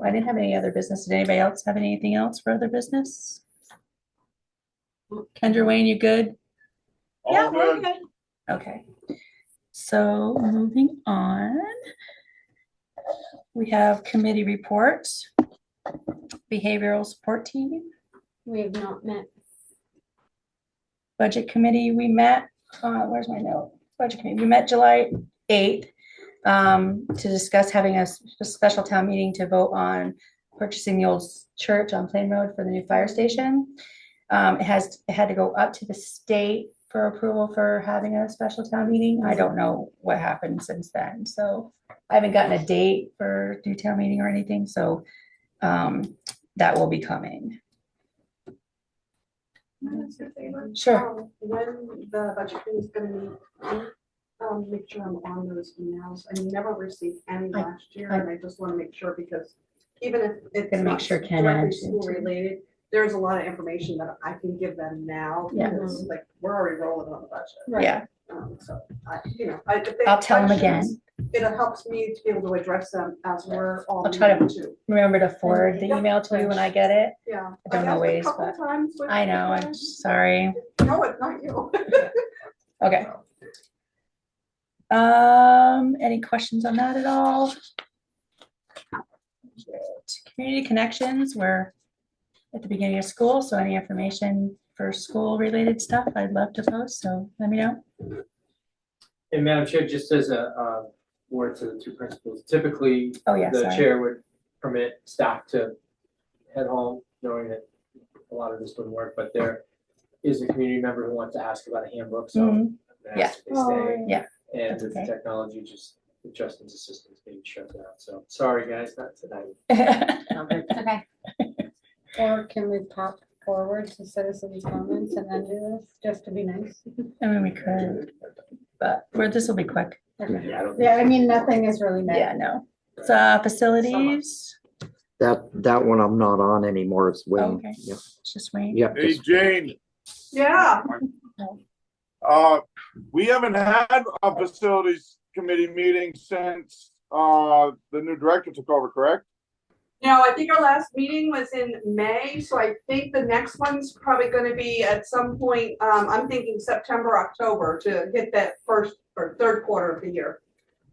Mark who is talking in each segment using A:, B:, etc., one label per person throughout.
A: Oh, I didn't have any other business. Did anybody else have anything else for other business? Kendra Wayne, you good?
B: All
C: we're
B: good.
C: good.
A: Okay. So moving on. We have committee reports. Behavioral support team,
C: We have not met.
A: budget committee, we met, uh, where's my note? Budget committee, we met July eighth. Um, to discuss having a s- a special town meeting to vote on purchasing the old s- church on Plain Road for the new fire station. Um, it has, it had to go up to the state for approval for having a special town meeting. I don't know what happened since then, so. I haven't gotten a date for new town meeting or anything, so, um, that will be coming. Sure.
D: Um, When the budget committee is gonna meet, um, make sure I'm on those emails. I never received any
A: I-
D: last year,
A: I-
D: and I just wanna make sure because even if it's
A: Gonna make
D: not
A: sure Ken
D: directly
A: adds
D: school
A: into it.
D: related, there's a lot of information that I can give them now.
A: Yeah.
D: Because like, we're already rolling on the budget.
C: Right.
A: Yeah,
D: Um, So I, you know, I. if they
A: I'll
D: have
A: tell them
D: questions,
A: again.
D: It helps me to be able to address them as we're all.
A: I'll try to-
D: meeting too.
A: Remember to forward the
D: Yeah.
A: email to me when I get it.
D: Yeah.
A: I don't
D: I've
A: know
D: asked a
A: ways,
D: couple
A: but-
D: times with
A: I know, I'm
D: friends.
A: sorry.
D: No, it's not you.
A: Okay. Um, any questions on that at all? Community connections, we're at the beginning of school, so any information for school related stuff, I'd love to post, so let me know.
E: And Madam Chair, just as a, uh, word to the two principals, typically,
A: Oh, yeah,
E: the
A: sorry.
E: chair would permit staff to head home, knowing that a lot of this wouldn't work, but there is a community member who wants to ask about a handbook, so I'm
A: Mhm.
E: gonna ask if they
C: Oh,
E: stay.
A: Yeah.
E: And
A: That's
E: with
A: okay.
E: the technology, just with Justin's assistance being shut down, so, sorry, guys, not tonight.
A: Mm-hmm.
C: Okay. Or can we pop forward to citizens' comments and then do this, just to be nice?
A: I mean, we could, but we're, this will be quick.
C: Okay.
E: Yeah, I don't think-
C: Yeah, I mean, nothing is really
A: Yeah,
C: met.
A: no. So uh, facilities,
F: That, that one I'm not on anymore. It's Wayne.
A: Okay.
F: Yep,
A: just wait.
F: Yep.
B: Hey,
F: just-
B: Jane,
D: Yeah.
B: uh, we haven't had a facilities committee meeting since, uh, the new director took over, correct?
D: No, I think our last meeting was in May, so I think the next one's probably gonna be at some point, um, I'm thinking September, October to hit that first or third quarter of the year.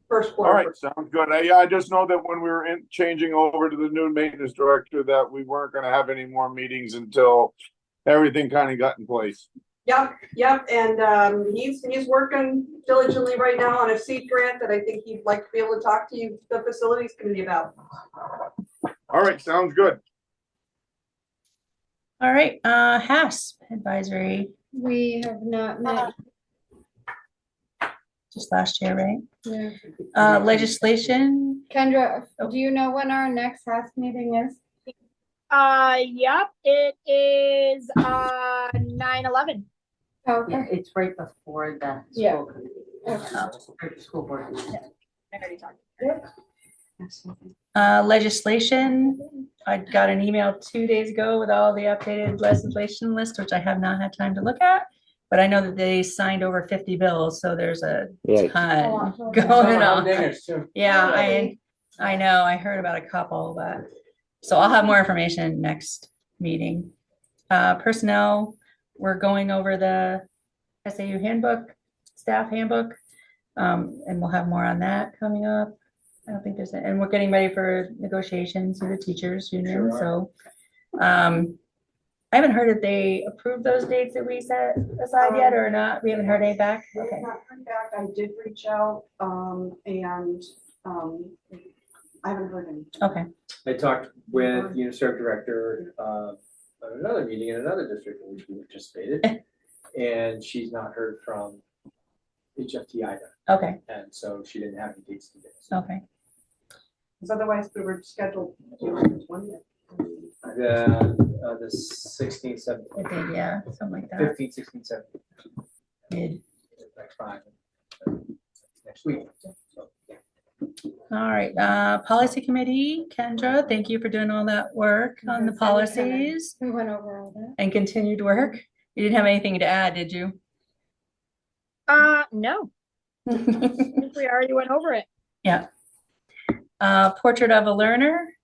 D: First
B: All right,
D: quarter.
B: sounds good. I, I just know that when we were in, changing over to the new maintenance director, that we weren't gonna have any more meetings until everything kind of got in place.
D: Yep, yep, and, um, he's, he's working diligently right now on a seed grant that I think he'd like to be able to talk to you, the facilities committee about.
B: All right, sounds good.
A: All right, uh, HASP advisory,
C: We have not
G: Uh-huh.
C: met.
A: just last year, right?
C: Yeah.
A: Uh, legislation,
C: Kendra, do you know when our next HASP meeting is?
H: Uh, yep, it is, uh, nine eleven.
C: Okay.
G: Yeah, it's right before the
C: Yeah.
G: school committee. or School board. meeting.
A: uh, legislation. I got an email two days ago with all the updated legislation list, which I have not had time to look at. But I know that they signed over fifty bills, so there's a
F: Yeah.
A: ton
C: Oh, wow.
A: going
E: Somehow
A: on.
E: there's two.
A: Yeah, I, I know, I heard about a couple, but, so I'll have more information next meeting. Uh, personnel, we're going over the SAU handbook, staff handbook. Um, and we'll have more on that coming up. I don't think there's, a- and we're getting ready for negotiations with the teachers union, so. Um, I haven't heard if they approved those dates that we set aside yet or not. We haven't heard any back.
D: I have
A: Okay,
D: not heard back. I did reach out, um, and, um, I haven't heard anything.
A: okay.
E: I talked with UNICEF Director uh, at another meeting in another district in which we participated. And she's not heard from HFT either,
A: Okay,
E: and so she didn't have any dates to give us.
A: okay.
D: Because otherwise we were scheduled to do it on the twentieth.
E: The, uh, the sixteenth,
A: I
E: seventeenth,
A: think, Yeah, something like that.
E: fifteenth, sixteenth, seventeenth,
A: Good.
E: like five. uh, Next week, so, yeah.
A: All right, uh, policy committee, Kendra, thank you for doing all that work on the
C: Yes, anytime.
A: policies
C: We went over all that.
A: and continued work. You didn't have anything to add, did you?
H: Uh, no, I think we already went over it.
A: Uh, portrait of a learner,